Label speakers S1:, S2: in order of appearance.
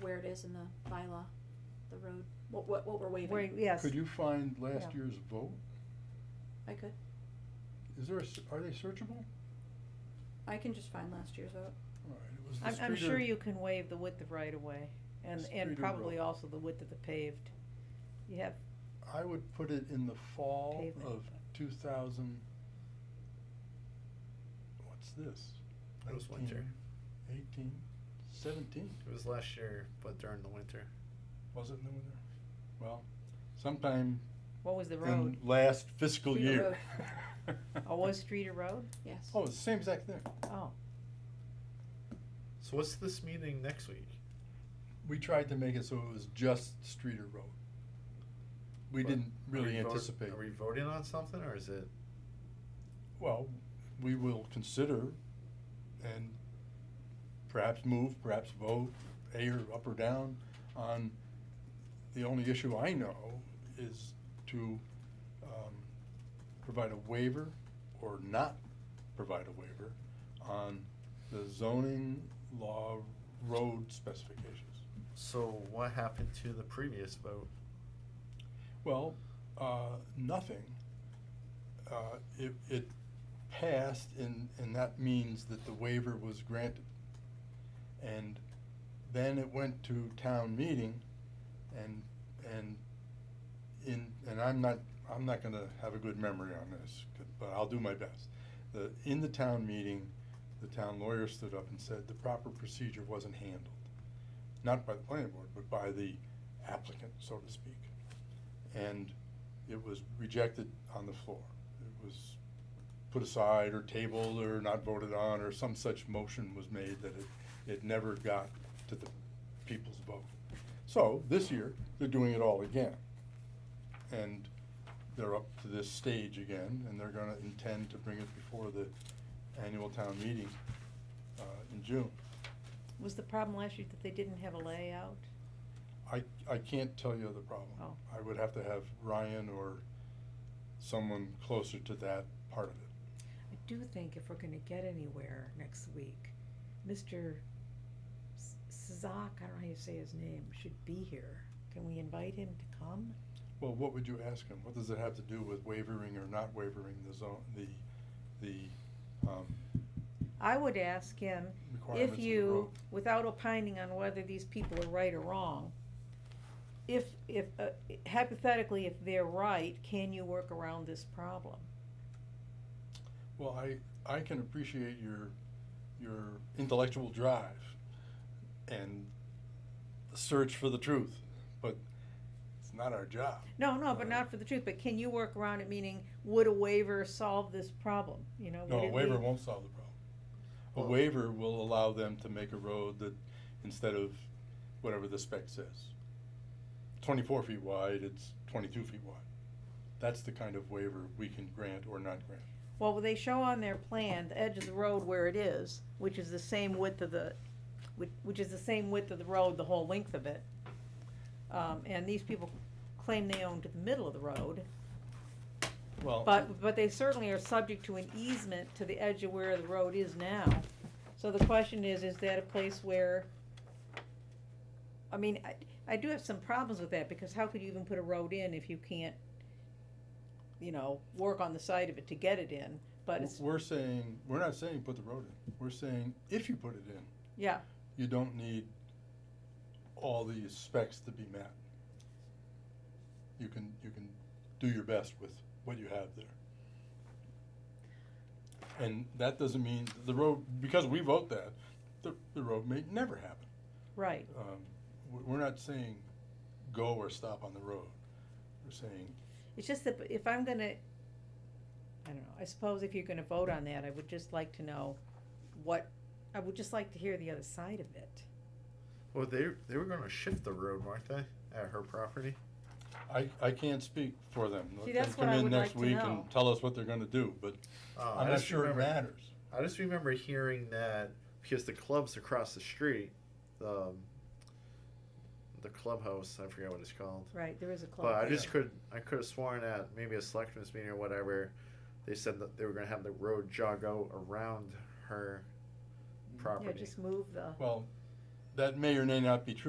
S1: where it is in the bylaw, the road, what, what, what we're
S2: Where,
S1: waiving.
S2: yes,
S3: Could you find last
S2: Yeah.
S3: year's vote?
S1: I could,
S3: Is there, a s- are they searchable?
S1: I can just find last year's vote.
S3: All right, it was the
S2: I'm, I'm sure
S3: Streeter-
S2: you can waive the width of right of way and, and
S3: Streeter
S2: probably
S3: Road.
S2: also the width of the paved. You have,
S3: I would put it in the fall
S2: Pavement.
S3: of two thousand. What's this?
S4: That was winter.
S3: 18, Eighteen, seventeen,
S4: It was last year, but during the winter.
S3: was it in the winter? Well, sometime
S2: what was the road?
S3: in last fiscal
S1: Streeter
S3: year.
S2: Oh, was Streeter Road?
S1: Yes.
S3: Oh, it's the same exact thing.
S2: Oh,
S4: So what's this meeting next week?
S3: We tried to make it so it was just Streeter Road. We
S4: But
S3: didn't
S4: Are
S3: really
S4: we vote-
S3: anticipate.
S4: Are we voting on something, or is it?
S3: Well, we will consider and perhaps move, perhaps vote, A or up or down on, the only issue I know is to, um, provide a waiver or not provide a waiver on the zoning law road specifications.
S4: So what happened to the previous vote?
S3: Well, uh, nothing. Uh, It, it passed and, and that means that the waiver was granted. And then it went to town meeting and, and in, and I'm not, I'm not gonna have a good memory on this, but I'll do my best. The, in the town meeting, the town lawyer stood up and said the proper procedure wasn't handled. Not by the planning board, but by the applicant, so to speak and it was rejected on the floor. It was put aside or tabled or not voted on or some such motion was made that it, it never got to the people's vote. So this year, they're doing it all again. And they're up to this stage again and they're gonna intend to bring it before the annual town meeting, uh, in June.
S2: was the problem last year that they didn't have a layout?
S3: I, I can't tell you the problem.
S2: Oh.
S3: I would have to have Ryan or someone closer to that part of it.
S2: I do think if we're gonna get anywhere next week, Mr. S- Sazak, I don't know how you say his name, should be here. Can we invite him to come?
S3: Well, what would you ask him? What does it have to do with wavering or not wavering the zone, the, the, um,
S2: I would ask him if
S3: requirements of the road?
S2: you, without opining on whether these people are right or wrong, if, if, uh, hypothetically, if they're right, can you work around this problem?
S3: Well, I, I can appreciate your, your intellectual drive and the search for the truth, but it's not our job.
S2: No, no, but
S3: Right.
S2: not for the truth, but can you work around it, meaning would a waiver solve this problem, you know?
S3: No,
S2: would
S3: a
S2: it
S3: waiver
S2: lead-
S3: won't solve the problem. A
S4: Well-
S3: waiver will allow them to make a road that, instead of whatever the spec says, twenty-four feet wide, it's twenty-two feet wide. That's the kind of waiver we can grant or not grant.
S2: Well, they show on their plan, the edge of the road where it is, which is the same width of the, which, which is the same width of the road, the whole length of it. Um, and these people claim they own to the middle of the road,
S3: Well.
S2: But, but they certainly are subject to an easement to the edge of where the road is now. So the question is, is that a place where, I mean, I, I do have some problems with that, because how could you even put a road in if you can't, you know, work on the side of it to get it in, but it's,
S3: We're saying, we're not saying put the road in, we're saying if you put it in,
S2: yeah,
S3: you don't need all these specs to be met. You can, you can do your best with what you have there. And that doesn't mean the road, because we vote that, the, the road may never happen.
S2: right.
S3: Um, we- we're not saying go or stop on the road. We're saying,
S2: It's just that if I'm gonna, I don't know, I suppose if you're gonna vote on that, I would just like to know what, I would just like to hear the other side of it.
S4: Well, they they were going to shift the road, weren't they, at her property?
S3: I, I can't speak for them. Let
S2: See,
S3: them
S2: that's what I would like to
S3: Come in next week
S2: know.
S3: and tell us what they're gonna do, but
S4: Uh, I
S3: I'm not
S4: just
S3: sure it
S4: remember-
S3: matters.
S4: I just remember hearing that because the clubs across the street, the the clubhouse, I forget what it's called.
S2: Right, there is a
S4: But
S2: clause.
S4: I just
S3: Yeah.
S4: could I could have sworn at maybe a selectmen's meeting or whatever, they said that they were gonna have the road jog out around her
S2: Yeah,
S4: property.
S2: Mm. just move the.
S3: Well, that may or may not be true.